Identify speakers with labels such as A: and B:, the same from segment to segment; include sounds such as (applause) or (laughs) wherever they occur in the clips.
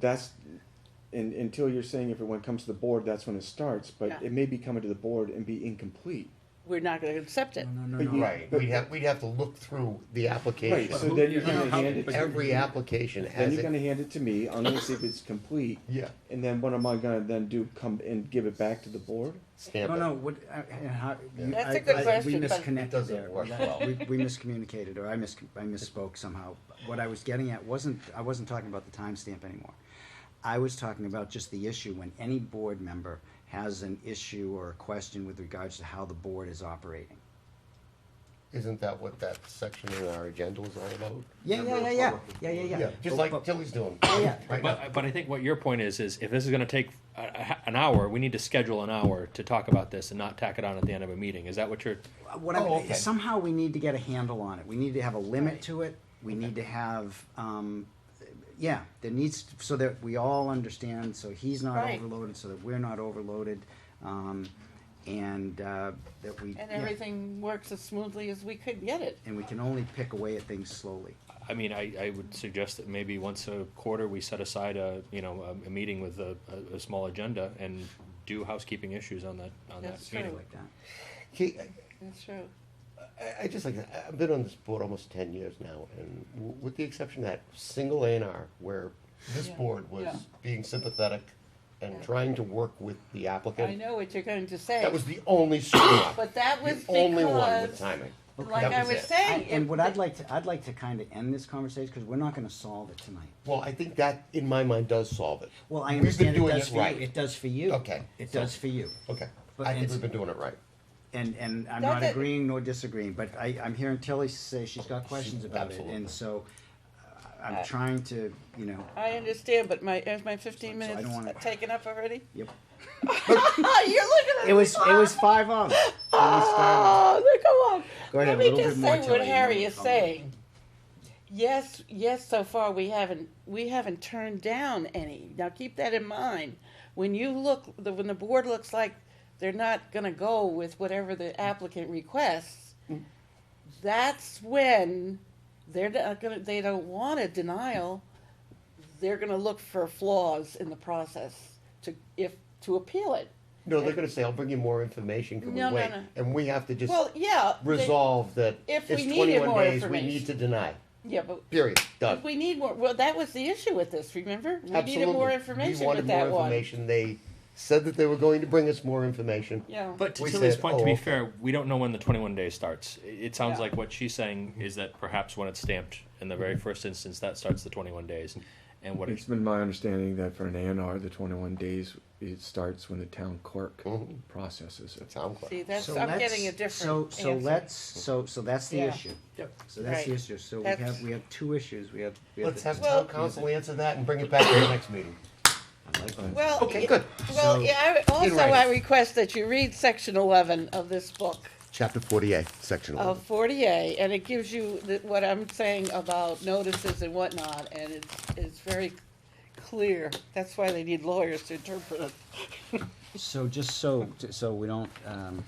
A: that's, and, until you're saying if it when it comes to the board, that's when it starts, but
B: Yeah.
A: it may be coming to the board and be incomplete.
B: We're not gonna accept it.
C: No, no,
A: But
C: no,
A: you-
C: no.
D: Right, we'd have, we'd have to look through the
A: Right,
D: application.
A: so then you're gonna
D: How-
A: hand it, to-
D: Every application
A: then
D: has
A: you're gonna
D: it.
A: hand it to me, I'm gonna see if it's complete.
D: Yeah.
A: And then what am I gonna then do, come and give it back to the board?
D: Stamp
C: No,
D: it.
C: no, what, I- and how. you-
B: That's
C: I-
B: a good
C: I-
B: question,
C: We
B: but-
C: misconnected
D: It doesn't
C: there.
D: work
C: That-
D: well.
C: We, we miscommunicated, or I mis, I misspoke somehow. What I was getting at wasn't, I wasn't talking about the timestamp anymore. I was talking about just the issue when any board member has an issue or a question with regards to how the board is operating.
D: Isn't that what that section in our agenda is all about?
C: Yeah, yeah, yeah, yeah, yeah, yeah, yeah.
D: Yeah, just
C: But-
D: like
C: but-
D: Tilly's doing.
C: yeah.
D: right now.
E: But, but I think what your point is is if this is going to take a, a- an hour, we need to schedule an hour to talk about this and not tack it on at the end of a meeting. Is that what you're?
C: what
D: Oh,
C: I,
D: okay.
C: somehow we need to get a handle on it. We need to have a limit to it. We need to have, um, yeah, there needs so that we all understand. So he's not
B: Right.
C: overloaded. So that we're not overloaded, um, and uh, that we
B: And
C: yeah.
B: everything works as smoothly as we could get it.
C: And we can only pick away at things slowly.
E: I mean, I, I would suggest that maybe once a quarter we set aside a you know a, a meeting with a, a, a small agenda and do housekeeping issues on that on
B: That's
E: that meeting.
B: true.
C: Like that.
D: He-
B: That's true.
D: I, I just like, I've been on this board almost ten years now, and w- with the exception of that single A and R, where this
B: Yeah.
D: board was
B: Yeah.
D: being sympathetic and
B: Yeah.
D: trying to work with the applicant.
B: I know what you're going to say.
D: That was the only screw up.
B: But that was
D: The only one
B: because-
D: with timing.
B: Like
D: That
B: I
D: was
B: was
D: it.
B: saying.
C: And
B: it-
C: what I'd like to, I'd like to kind of end this conversation because we're not going to solve it tonight.
D: Well, I think that, in my mind, does solve it.
C: Well, I
D: We've been
C: understand it
D: doing
C: does
D: it
C: for you.
D: right.
C: It does for you.
D: Okay.
C: It
D: So-
C: does for you.
D: Okay,
C: But
D: I think
C: it's-
D: we've been doing it right.
C: And, and I'm
B: Not
C: not
B: that-
C: agreeing nor disagreeing, but I, I'm hearing Tilly say she's got questions about it,
D: Absolutely.
C: and so uh, I'm trying to, you know,
B: I understand, but my, is my fifteen
C: So I don't
B: minutes
C: wanna-
B: taken up
C: (laughs)
B: already? (laughs)
C: yep.
B: Oh, you're looking at
C: It was,
B: me.
C: it was five of them. It was five
B: Oh,
C: of
B: look, come on.
C: Go ahead,
B: Let
C: a
B: me
C: little
B: just
C: bit more
B: say
C: till I
B: what
C: know
B: Harry
C: what
B: is
C: I'm-
B: saying. Yes, yes. So far, we haven't we haven't turned down any. Now keep that in mind. When you look, the, when the board looks like they're not going to go with whatever the applicant requests,
C: Mm.
B: that's when they're not going to. They don't want a denial. They're going to look for flaws in the process to if to appeal it.
D: No, they're gonna say, I'll bring you more information, can we
B: No, no,
D: wait?
B: no.
D: And we have to just
B: Well, yeah. they-
D: resolve that
B: If
D: it's
B: we needed
D: twenty-one
B: more
D: days, we
B: information.
D: need to deny,
B: Yeah, but
D: period, done.
B: If we need more, well, that was the issue with this, remember? We
D: Absolutely.
B: needed more
D: We
B: information
D: wanted
B: with
D: more
B: that one.
D: information. They said that they were going to bring us more information.
B: Yeah.
E: But to
D: We
E: Tilly's
D: said,
E: point,
D: "Oh,
E: to be
D: okay."
E: fair, we don't know when the 21 days starts. It- It sounds
B: Yeah.
E: like what she's saying is that perhaps when it's stamped in the
B: Mm-hmm.
E: very first instance, that starts the 21 days, and what
A: It's
E: it's
A: been my understanding that for an A and R, the twenty-one days, it starts when the town clerk
D: Mhm.
A: processes it.
D: Sound
B: See,
D: clear?
B: that's,
C: So
B: Oh. I'm
C: let's-
B: getting a different
C: So, so
B: answer.
C: let's, so, so that's the
B: Yeah.
C: issue.
E: Yep.
C: So that's the
B: Right.
C: issue. So we
B: That's-
C: have, we have two issues. We have. we
D: Let's
C: the-
D: have
B: Well-
D: town council answer that and bring it back to the next meeting.
C: I like that.
B: Well,
D: Okay,
B: yeah-
D: good.
B: Well,
C: So-
B: yeah, I- also
D: writing.
B: I request that you read section eleven of this book
D: Chapter forty-eight, section
B: of
D: eleven.
B: forty A, and it gives you the- what I'm saying about notices and whatnot, and it's, it's very clear. That's why they need lawyers to interpret it.
C: So just so, so we don't, um,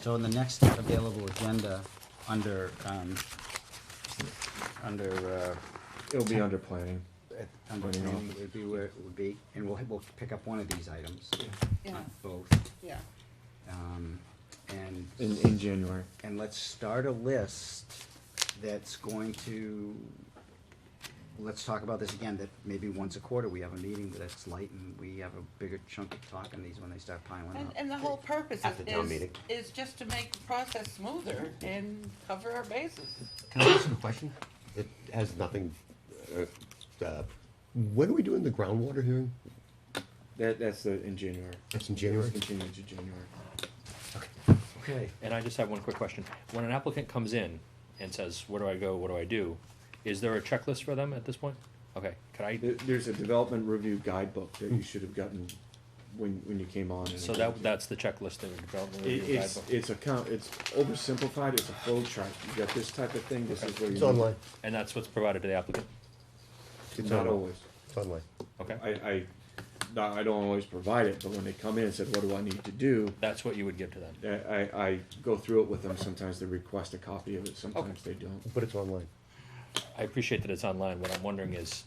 C: so in the next available agenda, under, um, under, uh,
A: It'll be under planning.
C: at under
A: Putting
C: ten
A: off.
C: would be where it would be, and we'll, we'll pick up one of these items,
B: Yeah,
C: not both.
B: yeah.
C: Um, and,
A: In, in January.
C: and let's start a list that's going to, let's talk about this again, that maybe once a quarter we have a meeting that's light and we have a bigger chunk of talk on these when they start piling
B: And,
C: up.
B: and the whole purpose
D: At the town
B: is,
D: meeting.
B: is just to make the process smoother and cover our bases.
D: Can I ask you a question? It has nothing, uh, uh, when are we doing the groundwater hearing?
A: That, that's the, in January.
D: That's in January?
A: Continue to January.
C: Okay.
E: And I just have one quick question. When an applicant comes in and says, where do I go, what do I do? Is there a checklist for them at this point? Okay, could I,
A: There, there's a development review guidebook that
D: Hmm.
A: you should have gotten when, when you came on. and-
E: so that, that's the checklist that would develop in the
A: It,
E: review
A: it's,
E: guidebook?
A: it's a count, it's oversimplified, it's a flow chart. You got this type of thing, this is where you.
D: It's online,
E: And that's what's provided to the applicant?
D: It's
A: Not
D: on-
A: always.
D: it's online.
E: Okay,
A: I, I, no, I don't always provide it, but when they come in and said, what do I need to do?
E: that's what you would give to them?
A: I, I, I go through it with them. Sometimes they request a copy of it, sometimes they don't.
D: But it's online.
E: I appreciate that it's online. What I'm wondering is,